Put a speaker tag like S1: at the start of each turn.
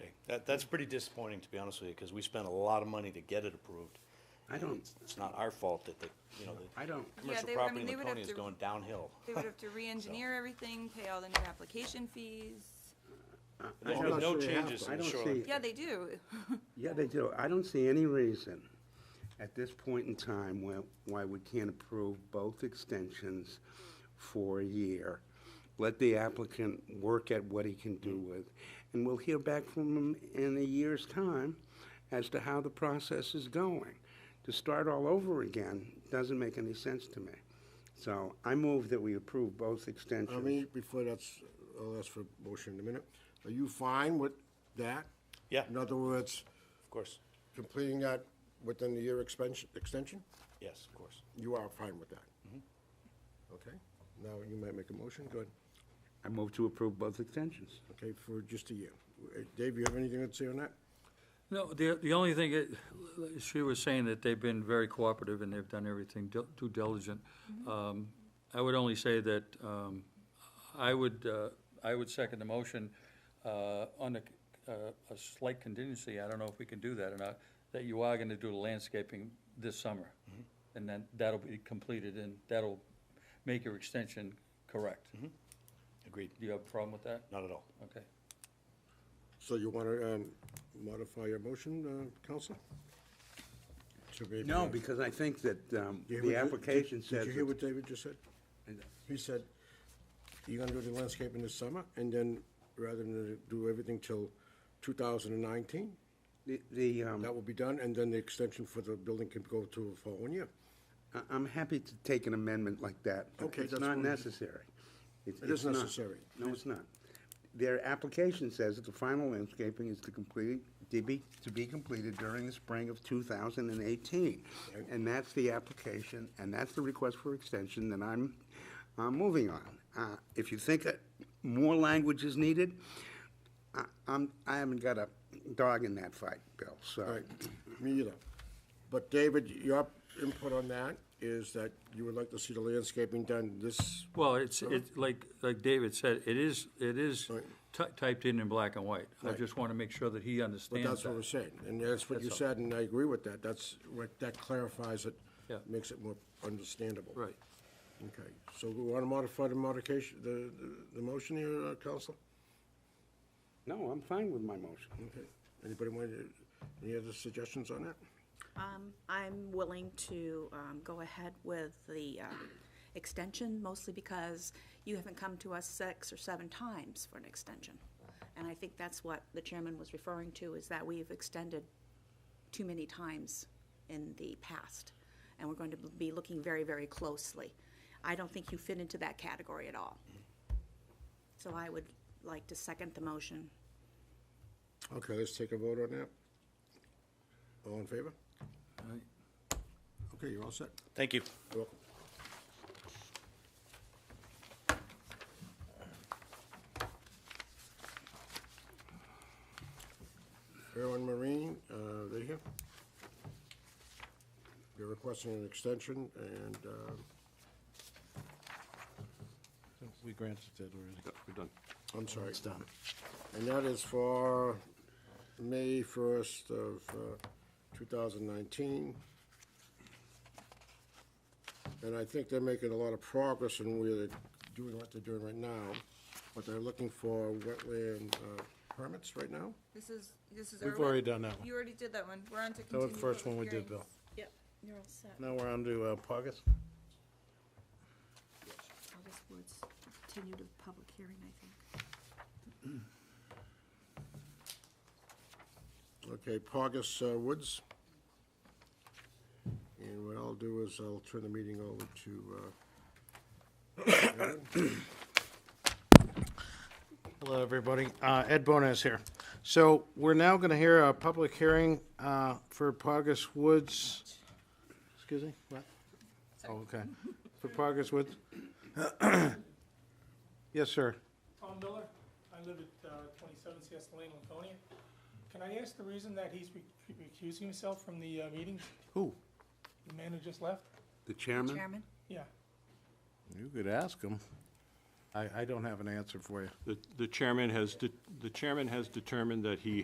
S1: That, that's pretty disappointing, to be honest with you, because we spent a lot of money to get it approved.
S2: I don't,
S1: It's not our fault that the, you know, the
S2: I don't,
S1: commercial
S3: they- I
S1: property
S3: mean,
S1: in
S3: they would
S1: Laconia
S3: have
S1: is
S3: to-
S1: going downhill.
S3: They would have to re-engineer everything, pay all the new application fees.
S2: I
S1: There's no
S2: don't-
S4: sure they have
S1: changes
S2: I
S1: in the
S2: don't
S1: shoreline.
S2: see-
S3: Yeah, they do.
S2: yeah, they do. I don't see any reason at this point in time why, why we can't approve both extensions for a year. Let the applicant work at what he can do with, and we'll hear back from him in a year's time as to how the process is going. To start all over again doesn't make any sense to me. So I move that we approve both extensions.
S4: I mean, before that's, I'll ask for a motion in a minute. Are you fine with that?
S1: Yeah.
S4: In other words,
S1: Of course,
S4: completing that within the year expansion, extension?
S1: yes, of course.
S4: You are fine with that? Okay, now you might make a motion, good.
S2: I move to approve both extensions.
S4: Okay, for just a year. Uh, Dave, you have anything to say on that?
S5: No, the, the only thing, it- she was saying that they've been very cooperative and they've done everything dil- due diligent. Um, I would only say that um, I would, uh, I would second the motion uh, on a, uh, a slight contingency, I don't know if we can do that or not, that you are gonna do the landscaping this summer. And then that'll be completed and that'll make your extension correct. Do
S1: Agreed,
S5: you have a problem with that?
S1: not at all.
S5: Okay.
S4: So you want to modify your motion, uh, Counselor? To be-
S2: No, because I think that um,
S4: You hear
S2: the
S4: what-
S2: application
S4: did-
S2: says,
S4: Did you hear what David just said? He said, you're gonna do the landscaping this summer, and then rather than do everything till 2019,
S2: the- the, um,
S4: that will be done, and then the extension for the building can go to the following year.
S2: I- I'm happy to take an amendment like that.
S4: Okay,
S2: It's
S4: that's
S2: not
S4: fine.
S2: necessary. It's-
S4: It is
S2: it's not.
S4: necessary.
S2: No, it's not. Their application says that the final landscaping is to complete, to be, to be completed during the spring of 2018. And that's the application, and that's the request for extension that I'm, I'm moving on. Uh, If you think that more language is needed, I- I'm, I haven't got a dog in that fight, Bill, so.
S4: All right, me either. But David, your input on that is that you would like to see the landscaping done this,
S5: Well, it's, it's, like, like David said, it is, it is
S4: Right.
S5: ty- typed in in black and white. I
S4: Right.
S5: just want to make sure that he
S4: but
S5: understands
S4: that's what
S5: that.
S4: we're saying, and that's what you
S5: That's all.
S4: said, and I agree with that. That's, what- that clarifies it,
S5: Yeah.
S4: makes it more understandable.
S5: Right.
S4: Okay, so we want to modify the modification, the, the- the motion here, uh, Counselor?
S2: No, I'm fine with my motion.
S4: Okay, anybody want, to- any other suggestions on that?
S6: Um, I'm willing to, um, go ahead with the, um, extension, mostly because you haven't come to us six or seven times for an extension. And I think that's what the chairman was referring to, is that we've extended too many times in the past. And we're going to be looking very, very closely. I don't think you fit into that category at all. So I would like to second the motion.
S4: Okay, let's take a vote on that. All in favor?
S5: Right.
S4: Okay, you're all set.
S1: Thank you.
S4: You're welcome. Airland Marine, uh, they here? They're requesting an extension, and, uh,
S7: Oh, We granted it already. We're done.
S4: I'm sorry. It's done. And that is for May first of uh, two thousand nineteen. And I think they're making a lot of progress in where they're doing what they're doing right now, but they're looking for wetland uh, permits right now?
S3: This is, this is.
S7: We've
S3: our one-
S7: already done that one.
S3: You already did that one. We're on to
S7: That was
S3: continue
S7: the first one we
S3: public
S7: did,
S3: hearings.
S7: Bill.
S6: Yep, you're all set.
S7: Now we're on to uh, Pogus.
S6: August Woods, continue to public hearing, I think.
S4: Okay, Pogus uh, Woods. And what I'll do is I'll turn the meeting over to, uh, Aaron.
S7: Hello, everybody. Uh, Ed Bonas here. So we're now going to hear a public hearing uh, for Pogus Woods. Excuse me? What? Oh, okay. For Pogus Woods. Yes, sir.
S8: Tom Miller. I live at uh, 27 CS Lane, Laconia. Can I ask the reason that he's re- recusing himself from the uh, meetings?
S2: Who?
S8: The man who just left?
S2: The chairman?
S6: Chairman?
S8: Yeah.
S7: You could ask him. I, I don't have an answer for you.
S9: The- The chairman has, de- the chairman has determined that he